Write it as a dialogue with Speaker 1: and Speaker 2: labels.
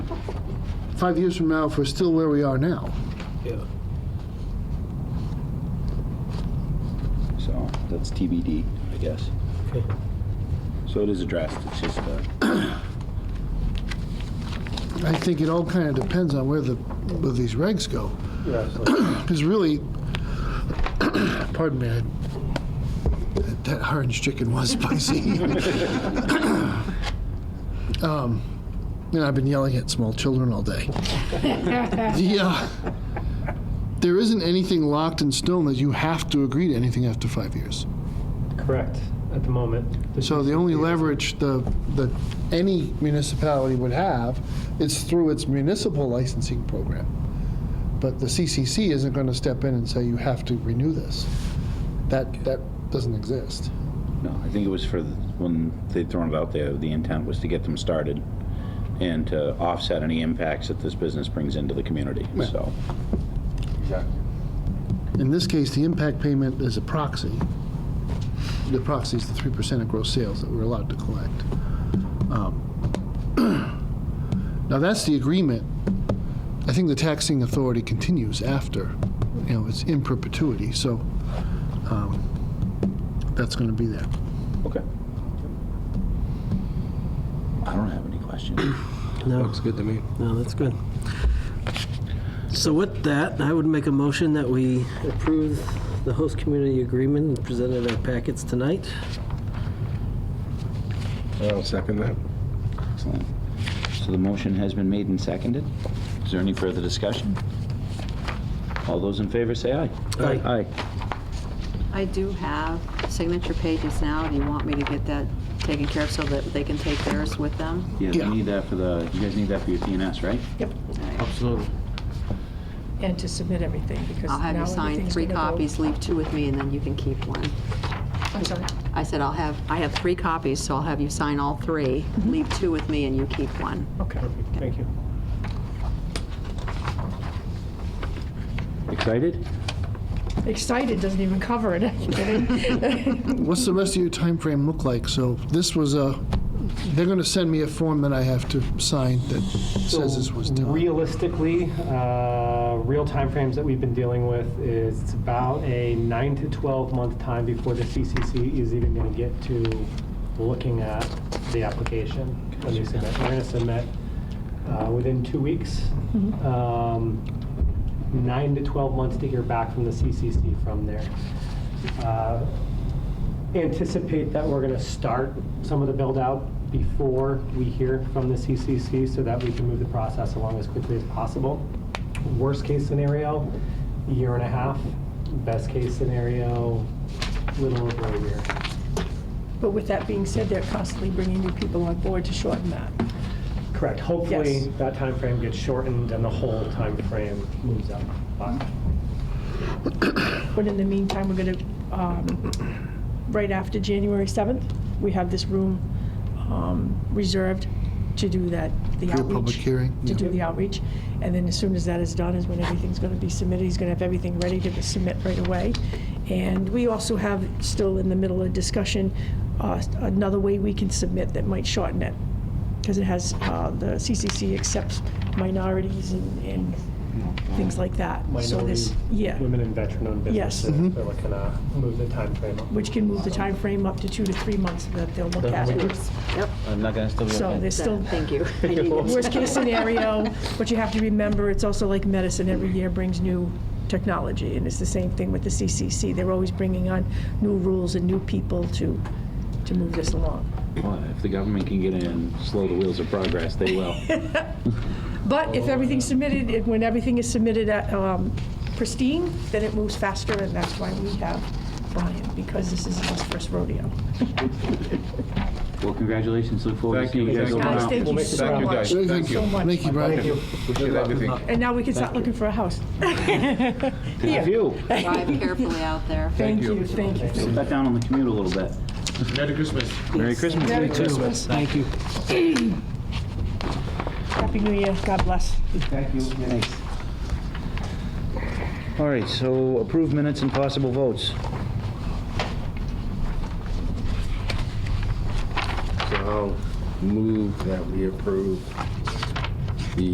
Speaker 1: five years from now, if we're still where we are now.
Speaker 2: Yeah.
Speaker 3: So that's TBD, I guess. So it is addressed, it's just, uh,
Speaker 1: I think it all kind of depends on where the, where these regs go. Because really, pardon me, I- that- that orange chicken was spicy. Um, You know, I've been yelling at small children all day. Yeah. There isn't anything locked in stone that you have to agree to anything after five years.
Speaker 2: Correct, at the moment. This
Speaker 1: So
Speaker 2: is-
Speaker 1: the only leverage the, that any municipality would have is through its municipal licensing program. But the CCC isn't going to step in and say, you have to renew this. That, that doesn't exist.
Speaker 3: no, I think it was for, the- when they'd thrown it out there, the intent was to get them started and to offset any impacts that this business brings into the community, so.
Speaker 1: In this case, the impact payment is a proxy. The proxy is the 3% of gross sales that we're allowed to collect. Um, Now, that's the agreement. I think the taxing authority continues after, you know, it's in perpetuity, so um, that's going to be there.
Speaker 3: Okay. I don't have any questions.
Speaker 4: No,
Speaker 5: Looks good to me.
Speaker 4: no, that's good. So with that, I would make a motion that we approve the host community agreement presented in our packets tonight.
Speaker 5: I'll second that.
Speaker 3: Excellent. So the motion has been made and seconded. Is there any further discussion? All those in favor say aye.
Speaker 4: Aye.
Speaker 3: Aye.
Speaker 6: I do have signature pages now. Do you want me to get that taken care of so that they can take theirs with them?
Speaker 3: Yeah,
Speaker 1: Yeah.
Speaker 3: you need that for the, you guys need that for your DNS, right?
Speaker 4: Absolutely.
Speaker 7: And to submit everything, because
Speaker 6: I'll
Speaker 7: now
Speaker 6: have you sign
Speaker 7: everything's
Speaker 6: three
Speaker 7: gonna go-
Speaker 6: copies, leave two with me, and then you can keep one.
Speaker 7: I'm sorry.
Speaker 6: I said I'll have, I have three copies, so I'll have you sign all three.
Speaker 7: Mm-hmm.
Speaker 6: Leave two with me and you keep one.
Speaker 7: Okay.
Speaker 2: Perfect, Thank you.
Speaker 3: Excited?
Speaker 7: Excited doesn't even cover it. Are you kidding?
Speaker 1: What's the rest of your time frame look like? So this was a, they're going to send me a form that I have to sign that says this was done.
Speaker 2: Realistically, uh, real timeframes that we've been dealing with is it's about a nine to 12 month time before the CCC is even going to get to looking at the application when they submit. We're going to submit uh, within two weeks.
Speaker 1: Mm-hmm.
Speaker 2: Um, Nine to 12 months to hear back from the CCC from there. Uh, anticipate that we're going to start some of the build-out before we hear from the CCC so that we can move the process along as quickly as possible. Worst-case scenario, a year and a half. Best-case scenario, a little over a year.
Speaker 7: But with that being said, they're constantly bringing new people on board to shorten that.
Speaker 2: Correct. Hopefully,
Speaker 7: Yes.
Speaker 2: that time frame gets shortened and the whole time frame moves up. But
Speaker 7: But in the meantime, we're gonna, um, right after January 7th, we have this room um, reserved to do that, the
Speaker 1: For your
Speaker 7: outreach.
Speaker 1: public hearing,
Speaker 7: To
Speaker 1: yeah.
Speaker 7: do the outreach. And then as soon as that is done is when everything's gonna be submitted. He's gonna have everything ready to submit right away. And we also have, still in the middle of discussion, uh, another way we can submit that might shorten it. Because it has, uh, the CCC accepts minorities and, and things like that. So
Speaker 2: minority,
Speaker 7: this, yeah
Speaker 2: women and veteran-owned
Speaker 7: Yes.
Speaker 2: businesses, they're looking to move the time frame up.
Speaker 7: which can move the time frame up to two to three months that they'll look at. it.
Speaker 6: Yep.
Speaker 3: I'm not gonna still be
Speaker 7: So there's still
Speaker 6: Thank you. I needed-
Speaker 7: worst-case scenario, but you have to remember, it's also like medicine, every year brings new technology, and it's the same thing with the CCC. They're always bringing on new rules and new people to, to move this along.
Speaker 3: Well, if the government can get in and slow the wheels of progress, they will.
Speaker 7: But if everything's submitted, if- when everything is submitted at, um, pristine, then it moves faster, and that's why we have Brian, because this is his first rodeo.
Speaker 3: Well, congratulations, look forward to
Speaker 5: Thank
Speaker 3: seeing
Speaker 5: you,
Speaker 3: you guys
Speaker 5: thank
Speaker 3: over
Speaker 5: you.
Speaker 7: Guys,
Speaker 3: now.
Speaker 7: thank you so
Speaker 5: Thank you,
Speaker 7: much.
Speaker 5: guys.
Speaker 1: Very
Speaker 5: Thank
Speaker 1: good.
Speaker 5: you.
Speaker 7: So much.
Speaker 1: Thank you, Brian.
Speaker 5: Appreciate everything.
Speaker 7: And now we can start looking for a house.
Speaker 3: Thank you.
Speaker 6: Drive carefully out there.
Speaker 7: Thank
Speaker 5: you.
Speaker 7: you, thank you.
Speaker 3: Sit back down on the commute a little bit.
Speaker 5: Merry Christmas.
Speaker 3: Merry Christmas.
Speaker 7: Merry Christmas.
Speaker 4: Thank you.
Speaker 7: Happy New Year. God bless.
Speaker 3: Thank you. All right, so approved minutes and possible votes.
Speaker 5: So I'll move that we approve